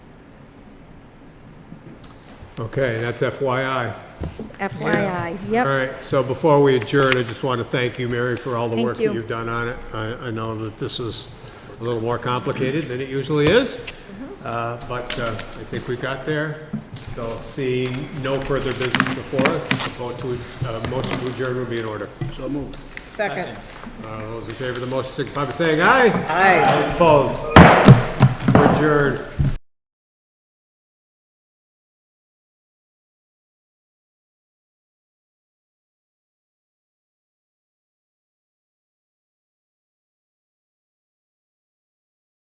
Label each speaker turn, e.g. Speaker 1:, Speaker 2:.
Speaker 1: Okay, that's FYI.
Speaker 2: FYI,
Speaker 1: All
Speaker 2: yep.
Speaker 1: right, so before we adjourn, I just want to thank you, Mary, for all the
Speaker 2: Thank
Speaker 1: work
Speaker 2: you.
Speaker 1: that you've done on it. I, I know that this is a little more complicated than it usually is,
Speaker 2: Mm-hmm.
Speaker 1: Uh, but uh, I think we got there. So seeing no further business before us, a vote to, uh, motion to adjourn would be in order.
Speaker 3: So moved.
Speaker 4: Second.
Speaker 1: Uh, Those in favor of the motion signify by saying aye.
Speaker 4: Aye.
Speaker 1: Opposed? We're Adjourned.